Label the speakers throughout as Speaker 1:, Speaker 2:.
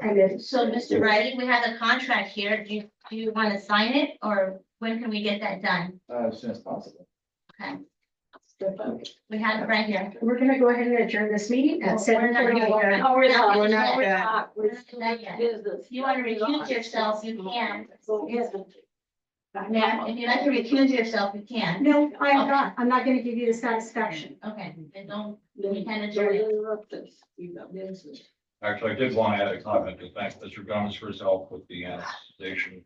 Speaker 1: And if.
Speaker 2: So, Mr. Riley, we have a contract here. Do you, do you want to sign it or when can we get that done?
Speaker 3: uh, as soon as possible.
Speaker 2: Okay, we have it right here.
Speaker 1: We're gonna go ahead and adjourn this meeting
Speaker 2: Well,
Speaker 1: at
Speaker 2: we're
Speaker 1: seven
Speaker 2: not
Speaker 1: thirty.
Speaker 2: gonna go back.
Speaker 4: Oh, we're not, we're
Speaker 2: Yeah.
Speaker 4: not, we're not. We're
Speaker 2: Not done yet.
Speaker 4: business.
Speaker 2: If you want to recuse yourself, you can.
Speaker 4: So, yes.
Speaker 2: Now, if you'd like to recuse yourself, you can.
Speaker 1: No, I'm not, I'm not gonna give you the satisfaction.
Speaker 2: Okay, then don't,
Speaker 4: Then
Speaker 2: we can
Speaker 4: you're
Speaker 2: adjourn it.
Speaker 4: interrupted. You got business.
Speaker 5: Actually, I did want to add a comment to thank Mr. Gomez for his help with the annexation.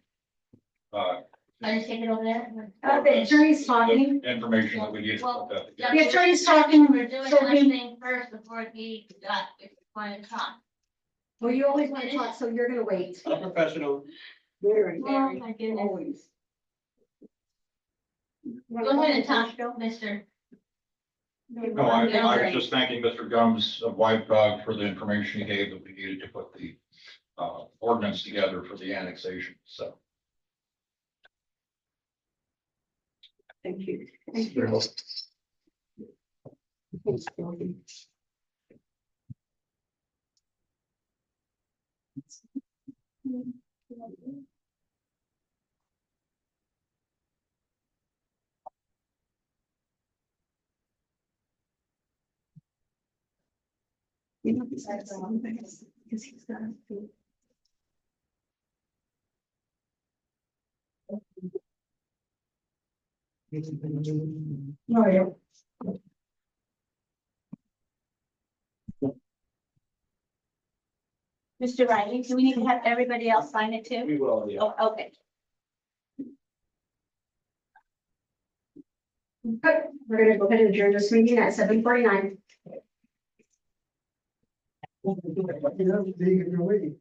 Speaker 5: uh,
Speaker 2: Can I take it over there?
Speaker 1: Uh, the attorney's talking,
Speaker 5: the Information that we need to put that together.
Speaker 1: the attorney's talking,
Speaker 2: We're doing
Speaker 1: so we-
Speaker 2: listening first before he got, if you want to talk.
Speaker 1: well, you always wanna talk, so you're gonna wait.
Speaker 6: I'm professional.
Speaker 4: Very,
Speaker 2: Oh,
Speaker 4: very,
Speaker 2: my goodness.
Speaker 4: always.
Speaker 2: Go ahead and talk, Mr.
Speaker 5: No, I, I was just thanking Mr. Gums of White Dog for the information he gave that we needed to put the, uh, ordinance together for the annexation, so.
Speaker 4: Thank you. Thanks, Dorothy. You know, besides the one thing, because he's got. a few-
Speaker 1: No, I don't.
Speaker 2: Mr. Riley, do we need to have everybody else sign it too?
Speaker 6: We will, yeah.
Speaker 2: Oh, okay.
Speaker 1: But we're gonna go ahead and adjourn this meeting at seven forty-nine.
Speaker 6: You're waiting.